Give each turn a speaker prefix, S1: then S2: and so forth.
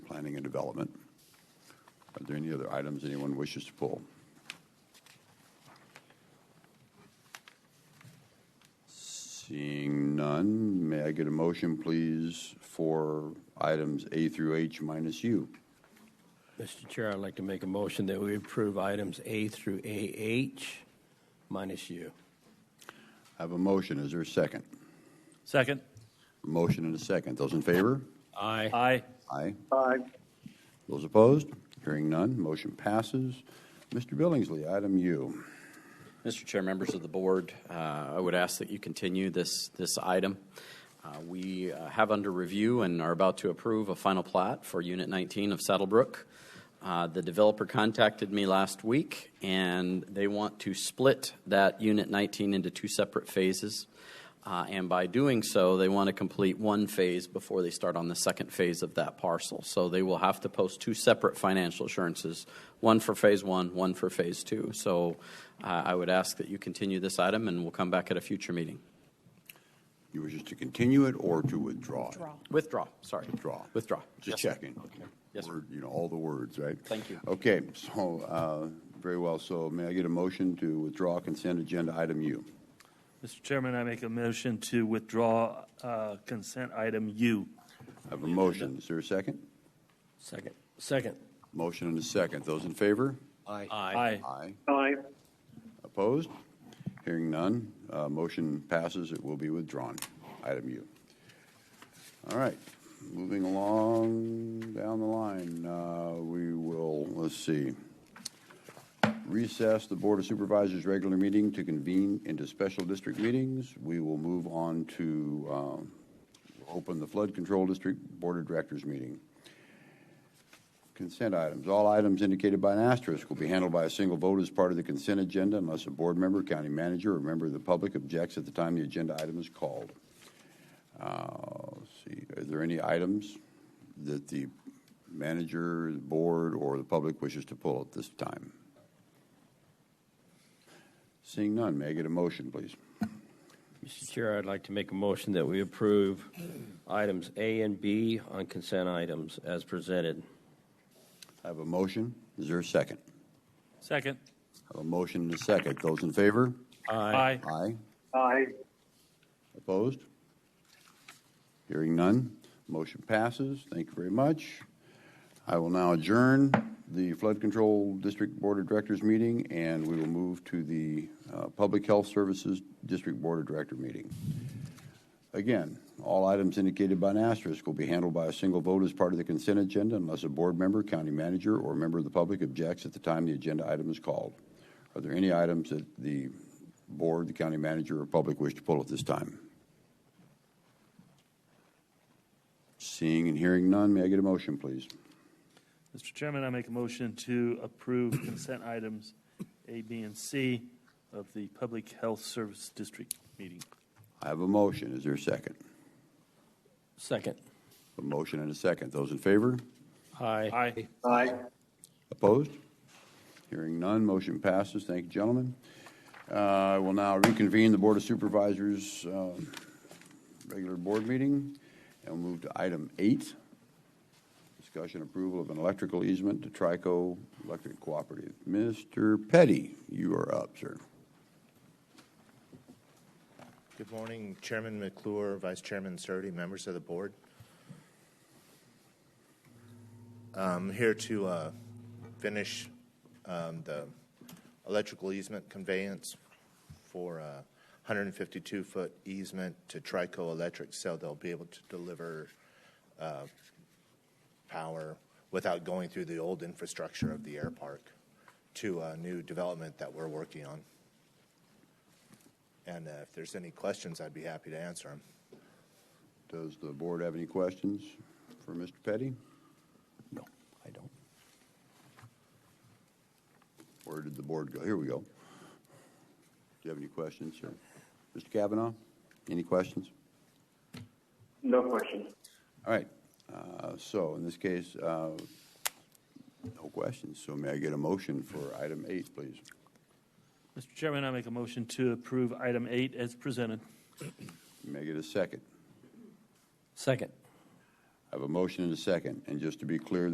S1: development. Are there any other items anyone wishes to pull? Seeing none, may I get a motion, please, for items A through H minus U?
S2: Mr. Chair, I'd like to make a motion that we approve items A through AH minus U.
S1: I have a motion. Is there a second?
S3: Second.
S1: Motion and a second. Those in favor?
S2: Aye.
S3: Aye.
S1: Aye.
S4: aye,
S1: Those opposed? Hearing none, motion passes. Mr. Billingsley, item U.
S5: Mr. Chair, members of the board, uh, I would ask that you continue this, this item. Uh, We uh, have under review and are about to approve a final plat for Unit 19 of Saddlebrook. Uh, The developer contacted me last week, and they want to split that Unit 19 into two separate phases. Uh, and by doing so, they want to complete one phase before they start on the second phase of that parcel. So they will have to post two separate financial assurances, one for phase one, one for phase two. So uh, I would ask that you continue this item, and we'll come back at a future meeting.
S1: You wish us to continue it or to withdraw? it?
S5: Withdraw, sorry.
S1: Withdraw.
S5: Withdraw.
S1: Just checking.
S5: Yes, sir.
S1: Word, You know, all the words, right?
S5: Thank you.
S1: Okay, so, uh, very well. So may I get a motion to withdraw consent agenda item U?
S3: Mr. Chairman, I make a motion to withdraw uh, consent item U.
S1: I have a motion. Is there a second?
S2: Second. Second.
S1: Motion and a second. Those in favor?
S2: Aye.
S3: Aye.
S1: Aye.
S4: aye,
S1: Opposed? Hearing none, uh, motion passes, it will be withdrawn. Item U. All right, moving along down the line, uh, we will, let's see, recess the Board of Supervisors' regular meeting to convene into special district meetings. We will move on to um, open the Flood Control District Board of Directors meeting. Consent items. All items indicated by an asterisk will be handled by a single vote as part of the consent agenda unless a board member, county manager, or member of the public objects at the time the agenda item is called. Uh, let's see, are there any items that the manager, the board, or the public wishes to pull at this time? Seeing none, may I get a motion, please?
S2: Mr. Chair, I'd like to make a motion that we approve items A and B on consent items as presented.
S1: I have a motion. Is there a second?
S3: Second.
S1: I have a motion and a second. Those in favor?
S3: Aye.
S1: Aye.
S4: aye,
S1: Opposed? Hearing none, motion passes. Thank you very much. I will now adjourn the Flood Control District Board of Directors meeting, and we will move to the uh, Public Health Services District Board of Director meeting. Again, all items indicated by an asterisk will be handled by a single vote as part of the consent agenda unless a board member, county manager, or member of the public objects at the time the agenda item is called. Are there any items that the board, the county manager, or public wish to pull at this time? Seeing and hearing none, may I get a motion, please?
S3: Mr. Chairman, I make a motion to approve consent items A, B, and C of the Public Health Service District meeting.
S1: I have a motion. Is there a second?
S2: Second.
S1: A motion and a second. Those in favor?
S2: Aye.
S3: Aye.
S4: aye.
S1: Opposed? Hearing none, motion passes. Thank you, gentlemen. Uh, I will now reconvene the Board of Supervisors' um, regular board meeting and we'll move to item eight, discussion approval of an electrical easement to Trico Electric Cooperative. Mr. Petty, you are up, sir.
S6: Good morning, Chairman McClure, Vice Chairman Surtee, members of the board. I'm here to uh, finish um, the electrical easement conveyance for uh, a 152-foot easement to Trico Electric, so they'll be able to deliver uh, power without going through the old infrastructure of the air park to a new development that we're working on. And uh, if there's any questions, I'd be happy to answer them.
S1: Does the board have any questions for Mr. Petty?
S2: No, I don't.
S1: Where did the board go? Here we go. Do you have any questions, sir? Mr. Kavanaugh, any questions?
S4: No question.
S1: All right, uh, so in this case, uh, no questions, so may I get a motion for item eight, please?
S3: Mr. Chairman, I make a motion to approve item eight as presented.
S1: May I get a second?
S2: Second.
S1: I have a motion and a second, and just to be clear,